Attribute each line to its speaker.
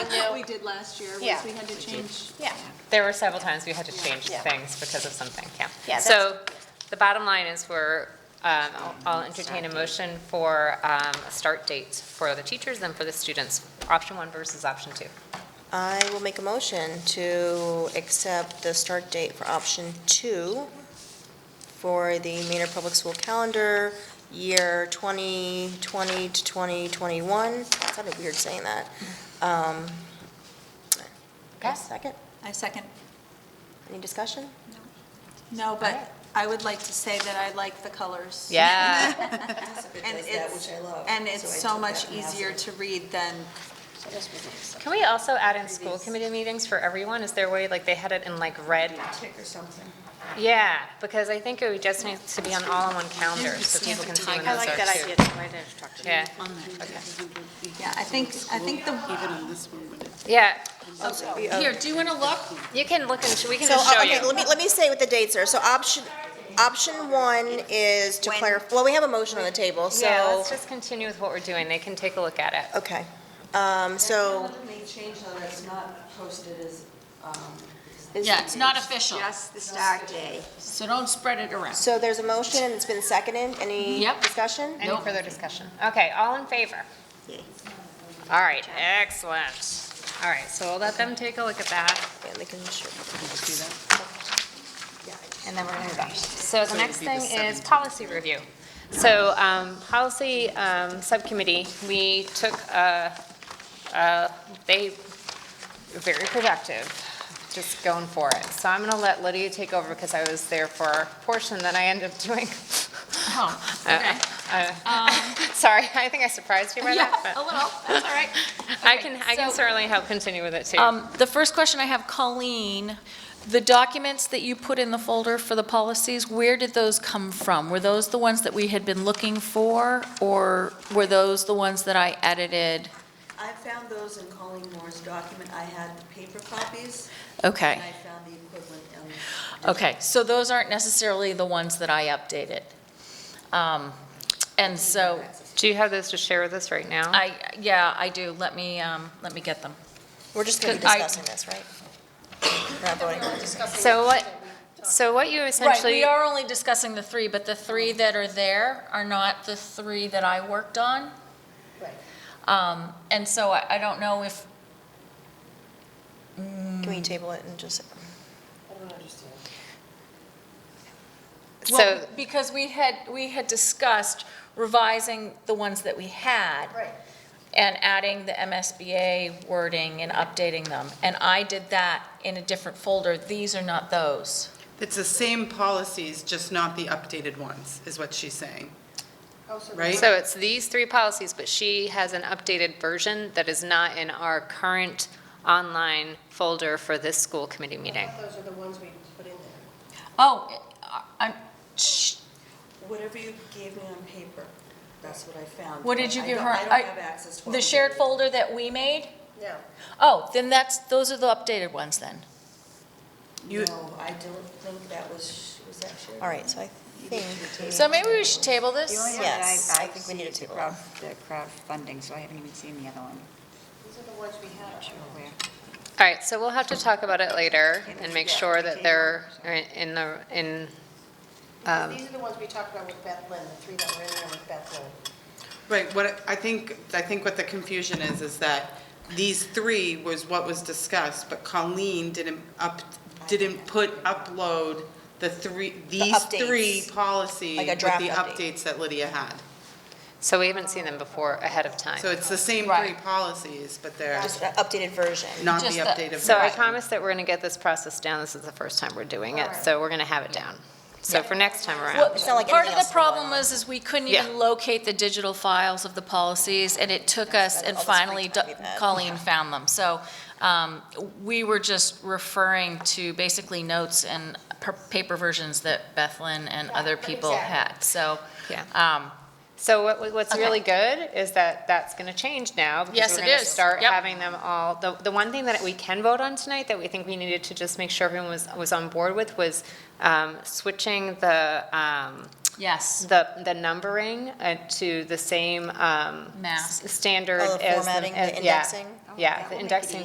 Speaker 1: we did last year, was
Speaker 2: Yeah.
Speaker 1: we had to change.
Speaker 2: Yeah,
Speaker 3: There were several times we had to change
Speaker 2: Yeah.
Speaker 3: things because of something, yeah.
Speaker 2: Yeah,
Speaker 3: So the bottom line is we're, um, I'll- I'll entertain a motion for um, a start date for the teachers and for the students, option one versus option two.
Speaker 4: I will make a motion to accept the start date for option two for the Maynard Public School calendar, year 2020 to 2021. It sounded weird saying that. Um,
Speaker 3: Okay.
Speaker 4: Second,
Speaker 1: I second.
Speaker 4: any discussion?
Speaker 1: No, but I would like to say that I like the colors.
Speaker 3: Yeah,
Speaker 1: And
Speaker 4: does that,
Speaker 1: it's,
Speaker 4: which I love,
Speaker 1: and
Speaker 4: so I
Speaker 1: it's so
Speaker 4: took
Speaker 1: much
Speaker 4: that and that's
Speaker 1: easier
Speaker 4: it.
Speaker 1: to read than,
Speaker 3: can we also add in school committee meetings for everyone? Is there a way, like, they had it in like red?
Speaker 5: tick or something.
Speaker 3: Yeah, because I think it would just need to be on all on one calendar, so people can see when
Speaker 2: I
Speaker 3: those
Speaker 2: like that
Speaker 3: are too.
Speaker 2: idea, too. I didn't talk to you.
Speaker 3: Yeah,
Speaker 1: yeah, I think, I think the,
Speaker 5: Even on this one, but it's.
Speaker 3: yeah,
Speaker 5: Here, do you want to look?
Speaker 3: you can look and, sh- we can
Speaker 4: So,
Speaker 3: just show
Speaker 4: uh,
Speaker 3: you.
Speaker 4: okay, let me, let me say what the dates are. So option, option one is to clarify, well, we have a motion on the table, so.
Speaker 3: Yeah, let's just continue with what we're doing, they can take a look at it.
Speaker 4: Okay, um, so.
Speaker 6: They changed though, it's not posted as, um,
Speaker 5: Yeah, it's not official,
Speaker 6: yes, the start day.
Speaker 5: so don't spread it around.
Speaker 4: So there's a motion and it's been seconded. Any
Speaker 5: Yep.
Speaker 4: discussion?
Speaker 3: Any
Speaker 5: Nope.
Speaker 3: further discussion? Okay, all in favor? All right, excellent. All right, so we'll let them take a look at that.
Speaker 4: Yeah, they can sure.
Speaker 3: And then we're going to go. So the next thing is policy review. So um, policy um, subcommittee, we took, a- a- they were very productive, just going for it. So I'm going to let Lydia take over because I was there for a portion that I ended up doing.
Speaker 5: Oh,
Speaker 3: Uh,
Speaker 5: okay.
Speaker 3: uh, Sorry, I think I surprised you by
Speaker 5: Um, Yeah,
Speaker 3: that,
Speaker 5: a
Speaker 3: but
Speaker 5: little, that's all right.
Speaker 3: I can, I can
Speaker 5: so-
Speaker 3: certainly help continue with it too.
Speaker 7: Um, The first question I have, Colleen, the documents that you put in the folder for the policies, where did those come from? Were those the ones that we had been looking for, or were those the ones that I edited?
Speaker 6: I found those in Colleen Moore's document, I had the paper copies,
Speaker 7: Okay,
Speaker 6: and I found the equivalent in
Speaker 7: okay, so those aren't necessarily the ones that I updated. Um, And so,
Speaker 3: Do you have those to share with us right now?
Speaker 7: I, yeah, I do, let me, um, let me get them.
Speaker 4: We're just going to be
Speaker 7: I-
Speaker 4: discussing this, right? We're not voting.
Speaker 3: So what, so what you
Speaker 7: Right,
Speaker 3: essentially.
Speaker 7: we are only discussing the three, but the three that are there are not the three that I worked on. Um, And so I I don't know if,
Speaker 4: Can we table it and just?
Speaker 3: So,
Speaker 7: Well, because we had, we had discussed revising the ones that we had. And adding the MSBA wording and updating them. And I did that in a different folder. These are not those.
Speaker 8: It's the same policies, just not the updated ones, is what she's saying. Right?
Speaker 3: so it's these three policies, but she has an updated version that is not in our current online folder for this school committee meeting.
Speaker 9: Those are the ones we put in there.
Speaker 7: Oh, I, shh,
Speaker 6: there. Whatever you gave me on paper, that's what I found.
Speaker 7: what did you
Speaker 6: I
Speaker 7: give
Speaker 6: don't-
Speaker 7: her?
Speaker 6: I don't have access to.
Speaker 7: The
Speaker 6: it.
Speaker 7: shared folder that we made?
Speaker 9: No.
Speaker 7: Oh, then that's, those are the updated ones then.
Speaker 8: You-
Speaker 6: No, I don't think that was, was that shared?
Speaker 4: All right, so I think,
Speaker 7: So maybe we should table this?
Speaker 4: yes, I think we need to table it.
Speaker 5: The crowdfunding, so I haven't even seen the other one.
Speaker 9: These are the ones we had.
Speaker 3: All right, so we'll have to talk about it later and make sure that they're in the, in,
Speaker 9: These are the ones we talked about with Beth Lynn, the three that were in there with Beth Lynn.
Speaker 8: Right, what, I think, I think what the confusion is, is that these three was what was discussed, but Colleen didn't up, didn't put, upload the three, these three
Speaker 4: updates.
Speaker 8: policies
Speaker 4: Like a
Speaker 8: with the
Speaker 4: draft update.
Speaker 8: updates that Lydia had.
Speaker 3: so we haven't seen them before ahead of time.
Speaker 8: So it's the same three
Speaker 7: Right.
Speaker 8: policies, but they're
Speaker 4: Just an updated version.
Speaker 8: not the
Speaker 7: Just the-
Speaker 8: updated.
Speaker 3: So I
Speaker 8: version.
Speaker 3: promise that we're going to get this process down. This is the first time we're doing it, so we're going to have it down. So for next time around.
Speaker 4: It's not like
Speaker 7: Part
Speaker 4: anything
Speaker 7: of the
Speaker 4: else in the
Speaker 7: problem was, is we couldn't
Speaker 3: Yeah.
Speaker 7: even locate the digital files of the policies, and it took us, and
Speaker 4: all the free
Speaker 7: finally
Speaker 4: time
Speaker 7: Do-
Speaker 4: we've had.
Speaker 7: Colleen found them. So um, we were just referring to basically notes and per- paper versions that Bethlyn and other people had, so.
Speaker 3: Yeah.
Speaker 7: um,
Speaker 3: So what, what's
Speaker 7: Okay.
Speaker 3: really good is that that's going to change now. because
Speaker 7: Yes,
Speaker 3: we're
Speaker 7: it
Speaker 3: gonna
Speaker 7: is.
Speaker 3: Start
Speaker 7: Yep.
Speaker 3: having them all, the, the one thing that we can vote on tonight that we think we needed to just make sure everyone was, was on board with was, um, switching the, um,
Speaker 7: Yes,
Speaker 3: the, the numbering uh, to the same, um,
Speaker 7: Mask.
Speaker 3: s- standard
Speaker 4: Oh, the
Speaker 3: as.
Speaker 4: formatting, the
Speaker 3: as- yeah.
Speaker 4: indexing?
Speaker 3: Yeah, the indexing